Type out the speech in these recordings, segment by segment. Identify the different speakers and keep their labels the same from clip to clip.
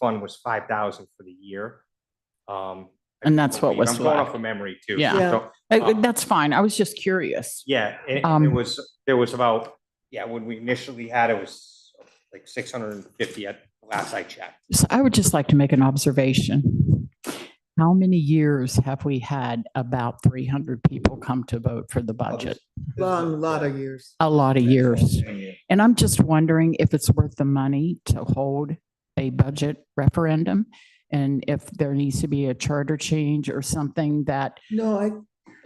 Speaker 1: fund was five thousand for the year. Um. I
Speaker 2: And that's what
Speaker 1: believe-
Speaker 2: was
Speaker 1: I'm going
Speaker 2: left.
Speaker 1: off of memory too.
Speaker 2: Yeah.
Speaker 3: Yeah.
Speaker 1: So,
Speaker 2: Uh, That's fine. I was just curious.
Speaker 1: Yeah, and and
Speaker 2: Um,
Speaker 1: it was, there was about, yeah, when we initially had it was like six hundred and fifty at last I checked.
Speaker 2: So I would just like to make an observation. How many years have we had about 300 people come to vote for the budget?
Speaker 3: Long, lot of years.
Speaker 2: A lot of years. And I'm just wondering if it's worth the money to hold a budget referendum? And if there needs to be a charter change or something that,
Speaker 3: No, I,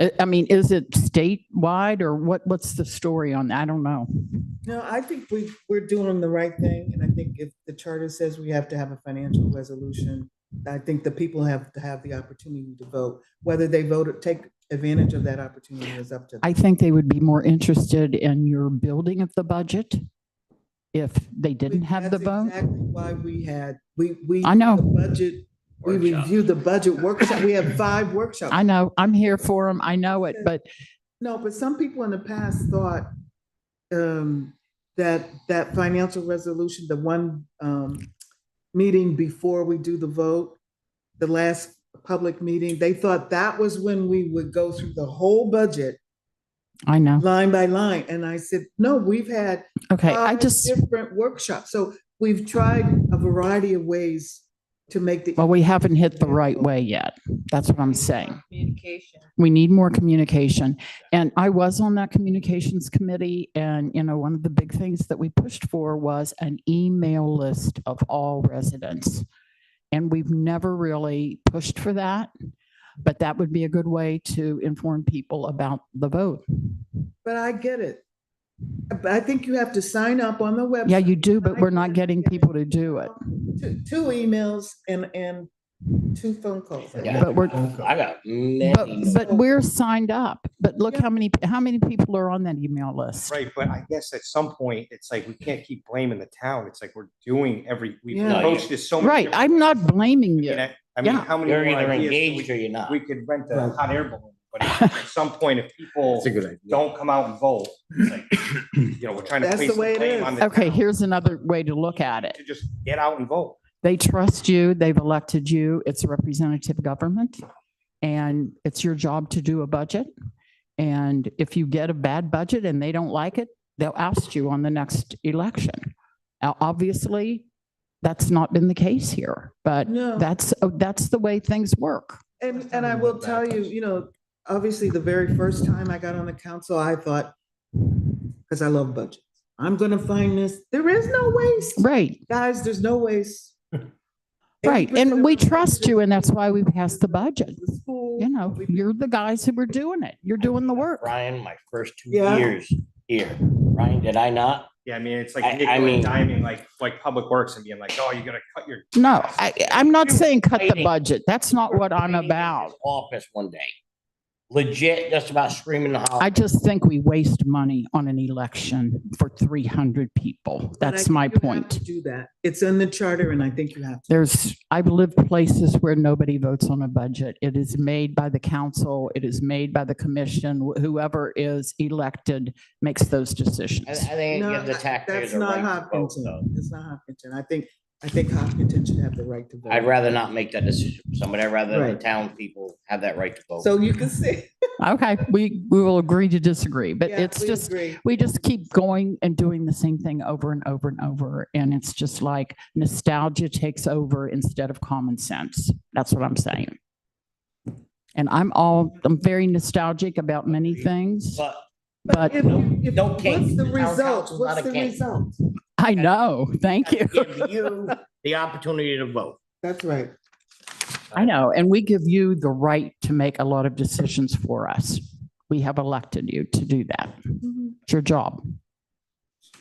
Speaker 2: I- I mean, is it statewide or what, what's the story on that? I don't know.
Speaker 3: no, I think we, we're doing the right thing. And I think if the charter says we have to have a financial resolution, I think the people have to have the opportunity to vote. Whether they vote or take advantage of that opportunity is up to them.
Speaker 2: I think they would be more interested in your building of the budget if they didn't have the
Speaker 3: That's
Speaker 2: vote.
Speaker 3: exactly Why we had, we, we.
Speaker 2: I know.
Speaker 3: the Budget, we review the budget workshop. We have five workshops.
Speaker 2: I know, I'm here for them. I know it, but
Speaker 3: No, but some people in the past thought um, that, that financial resolution, the one um, meeting before we do the vote, the last public meeting, they thought that was when we would go through the whole budget
Speaker 2: I know.
Speaker 3: line by line. And I said, no, we've had
Speaker 2: Okay, I
Speaker 3: five
Speaker 2: just,
Speaker 3: different workshops. So we've tried a variety of ways to make the.
Speaker 2: well, we haven't hit the right way yet. That's what I'm saying.
Speaker 4: Communication.
Speaker 2: We need more communication. And I was on that communications committee and, you know, one of the big things that we pushed for was an email list of all residents. And we've never really pushed for that, but that would be a good way to inform people about the vote.
Speaker 3: But I get it. But I think you have to sign up on the website.
Speaker 2: Yeah, you do, but we're not getting people to do it.
Speaker 3: Two, two emails and, and two phone calls.
Speaker 2: Yeah. But we're-
Speaker 5: I got
Speaker 2: But,
Speaker 5: many.
Speaker 2: but we're signed up, but look
Speaker 3: Yeah.
Speaker 2: how many, how many people are on that email list?
Speaker 1: Right, but I guess at some point, it's like, we can't keep blaming the town. It's like, we're doing every, we've
Speaker 3: Yeah. No,
Speaker 1: approached this so many.
Speaker 2: Right,
Speaker 1: different-
Speaker 2: I'm not blaming
Speaker 1: I mean,
Speaker 2: you.
Speaker 1: I- I mean,
Speaker 2: Yeah.
Speaker 1: how many
Speaker 5: You're
Speaker 1: more
Speaker 5: either
Speaker 1: ideas?
Speaker 5: engaged or
Speaker 1: do
Speaker 5: you're not.
Speaker 1: We we could rent a
Speaker 3: Right.
Speaker 1: hot air balloon, but at some point, if people
Speaker 5: good idea.
Speaker 1: don't come out and vote, it's like, you know, we're trying to
Speaker 3: That's the
Speaker 1: place the
Speaker 3: way it
Speaker 1: blame
Speaker 3: is.
Speaker 1: on the
Speaker 2: Okay,
Speaker 1: town
Speaker 2: here's another way to look at it.
Speaker 1: To just get out and vote.
Speaker 2: They trust you, they've elected you, it's representative government, and it's your job to do a budget. And if you get a bad budget and they don't like it, they'll oust you on the next election. Now, obviously, that's not been the case here, but
Speaker 3: No.
Speaker 2: that's, oh, that's the way things work.
Speaker 3: And, and I will tell you, you know, obviously, the very first time I got on the council, I thought, because I love budgets, I'm gonna find this, there is no waste.
Speaker 2: Right.
Speaker 3: Guys, there's no waste.
Speaker 2: Right,
Speaker 3: 80% of
Speaker 2: and we
Speaker 3: the
Speaker 2: trust you, and that's why we passed the budget.
Speaker 3: budget is full.
Speaker 2: You know, you're the guys who were doing it. You're doing the work.
Speaker 5: Ryan, my first two
Speaker 3: Yeah.
Speaker 5: years here, Ryan, did I not?
Speaker 1: Yeah, I mean, it's like
Speaker 5: I- I
Speaker 1: nickel and
Speaker 5: mean-
Speaker 1: diming, like, like Public Works and being like, oh, you're gonna cut your
Speaker 2: No, I, I'm not saying cut the
Speaker 5: Fighting.
Speaker 2: budget. That's not what I'm
Speaker 5: Ryan in his
Speaker 2: about.
Speaker 5: Office one day. Legit, just about screaming the house.
Speaker 2: I just think we waste money on an election for 300 people.
Speaker 3: But I
Speaker 2: That's
Speaker 3: think
Speaker 2: my
Speaker 3: you have
Speaker 2: point.
Speaker 3: to Do that. It's in the charter, and I think you have to.
Speaker 2: There's, I've lived places where nobody votes on a budget. It is made by the council, it is made by the commission. Wh- Whoever is elected makes those
Speaker 5: I, I
Speaker 2: decisions.
Speaker 5: think it
Speaker 3: No,
Speaker 5: gives the taxpayers
Speaker 3: That's
Speaker 5: a
Speaker 3: not
Speaker 5: right to vote, though.
Speaker 3: Hopkinton. That's not Hopkinton. I think, I think Hopkinton should have the right to vote.
Speaker 5: I'd rather not make that decision. for Somebody, I'd rather the
Speaker 3: Right.
Speaker 5: town people have that right to vote.
Speaker 3: So you can see.
Speaker 2: Okay, we, we will agree to disagree, but
Speaker 3: Yeah,
Speaker 2: it's
Speaker 3: we
Speaker 2: just,
Speaker 3: agree.
Speaker 2: we just keep going and doing the same thing over and over and over. And it's just like nostalgia takes over instead of common sense. That's what I'm saying. And I'm all, I'm very nostalgic about many things,
Speaker 5: But
Speaker 2: but
Speaker 3: If you- if-
Speaker 5: No
Speaker 3: What's
Speaker 5: case.
Speaker 3: the
Speaker 5: The town
Speaker 3: result?
Speaker 5: council's not
Speaker 3: What's
Speaker 5: a
Speaker 3: the
Speaker 5: case.
Speaker 3: result?
Speaker 2: I know, thank you.
Speaker 5: give you the opportunity to vote.
Speaker 3: That's right.
Speaker 2: I know, and we give you the right to make a lot of decisions for us. We have elected you to do that. It's your job.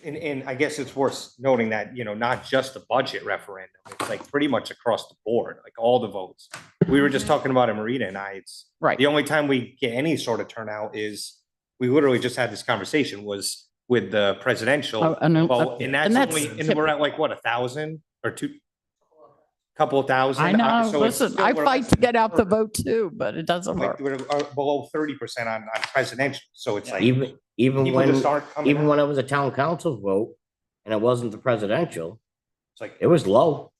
Speaker 1: And, and I guess it's worth noting that, you know, not just the budget referendum, it's like pretty much across the board, like all the votes. We were just talking about it, Marita and I, it's,
Speaker 2: Right.
Speaker 1: the only time we get any sort of turnout is, we literally just had this conversation was with the
Speaker 2: Oh,
Speaker 1: presidential.
Speaker 2: and, uh,
Speaker 1: vote, And that's
Speaker 2: and that's
Speaker 1: only, and we're at like, what, a thousand or two? Couple thousand?
Speaker 2: I
Speaker 1: Uh,
Speaker 2: know,
Speaker 1: so it's
Speaker 2: listen,
Speaker 1: still-
Speaker 2: I
Speaker 1: we're
Speaker 2: fight
Speaker 1: less
Speaker 2: to
Speaker 1: than
Speaker 2: get out the
Speaker 1: third.
Speaker 2: vote too, but it doesn't work.
Speaker 1: Like, we're uh, below thirty percent on, on presidential, so it's like,
Speaker 5: Even, even
Speaker 1: people just
Speaker 5: when,
Speaker 1: aren't coming
Speaker 5: even
Speaker 1: out.
Speaker 5: when it was a town council vote and it wasn't the presidential,
Speaker 1: It's like,
Speaker 5: it was low.